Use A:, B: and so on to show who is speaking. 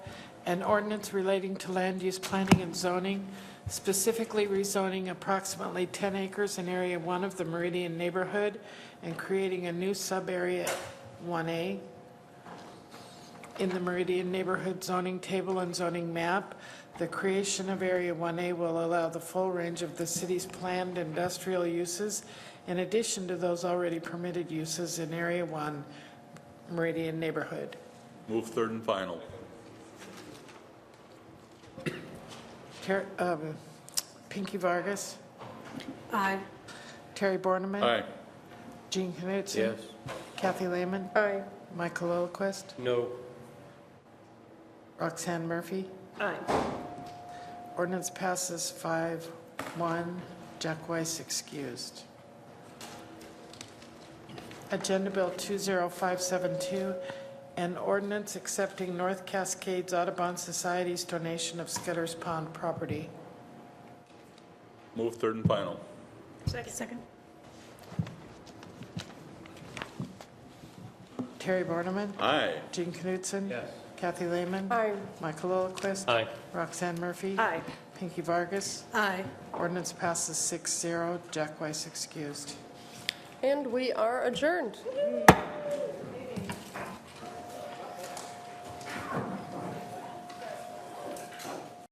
A: an ordinance relating to land use planning and zoning, specifically rezoning approximately 10 acres in Area 1 of the Meridian neighborhood and creating a new sub-area 1A in the Meridian Neighborhood Zoning Table and Zoning Map. The creation of Area 1A will allow the full range of the city's planned industrial uses in addition to those already permitted uses in Area 1 Meridian Neighborhood.
B: Move third and final.
A: Ter- um, Pinky Vargas,
C: Aye.
A: Terry Borneman.
B: Aye.
A: Gene Knutson. Kathy Lehman.
C: Aye.
A: Michael Olquist.
D: No.
A: Roxanne Murphy.
C: Aye.
A: Ordinance passes five, one. Jack Weiss excused. Agenda Bill 20572, an ordinance accepting North Cascades Audubon Society's donation of Scudder's Pond property.
B: Move third and final.
C: Second.
A: Terry Borneman.
B: Aye.
A: Gene Knutson.
D: Yes.
A: Kathy Lehman.
C: Aye.
A: Michael Olquist.
D: Aye.
A: Roxanne Murphy.
C: Aye.
A: Pinky Vargas.
C: Aye.
A: Ordinance passes six zero. Jack Weiss excused.
C: And we are adjourned.